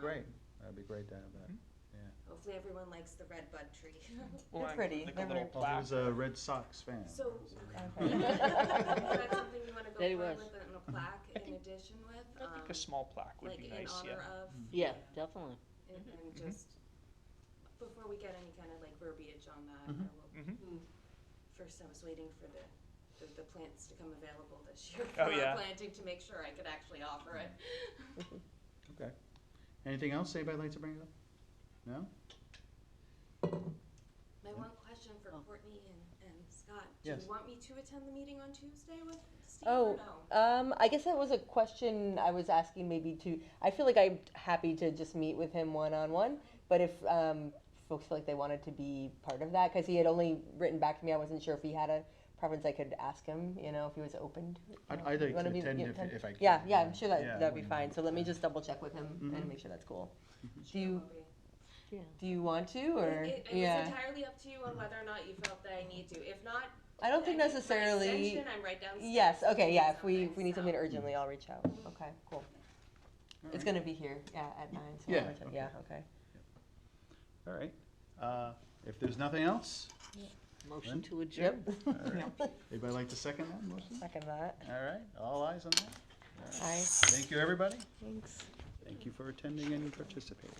great, that'd be great to have that, Mhm. yeah. Um, Hopefully everyone likes the red bud tree. Well, They're I- pretty. Like They're a little very- Well, plaque. who's a Red Sox fan? So- Hmm? Okay. Is that something you wanna go They forward was. with and a plaque I in think- addition with? I think um, a small plaque would like be in nice, yeah. honor of, Yeah, definitely. and, Mhm. and Mhm. just, before we get any kind of like verbiage on that, Mhm. or we'll Mhm. First, I was waiting for the, the, the plants to come available this year for Oh, yeah. our planting to make sure I could actually offer it. Okay. Anything else anybody like to bring up? No? My one question for Oh. Courtney and, and Scott, do Mm-hmm. Yes. you want me to attend the meeting on Tuesday with Steve Oh, or no? Um, I guess that was a question I was asking maybe to, I feel like I'm happy to just meet with him one-on-one, but if, um, folks feel like they wanted to be part of that, cause he had only written back to me, I wasn't sure if he had a preference, I could ask him, you know, if he was open. to- I'd, you know, I'd you like wanna to be- attend you if, attend? if I can. Yeah, yeah, I'm sure Yeah, that, that'd be wouldn't- fine, so let me just double check with him Mhm. and make sure that's cool. Do Sure you, will be. Yeah. do you want to, or, It, it was yeah, entirely up to you on whether or not you felt that I need to. If not, I don't think I need my necessarily, extension, I'm right downstairs. yes, if okay, need yeah, if we, something, if we need so. something urgently, I'll reach out, okay, cool. All It's right. gonna be here, yeah, at nine, so Yeah, I'll return- okay. yeah, okay. All right, uh, if there's nothing else, Lynn? Motion to adjourn. Yep. all right. anybody like to second that motion? Second that. All right, all eyes on that. Aye. Thank you, everybody. Thanks. Thank you for attending and participating.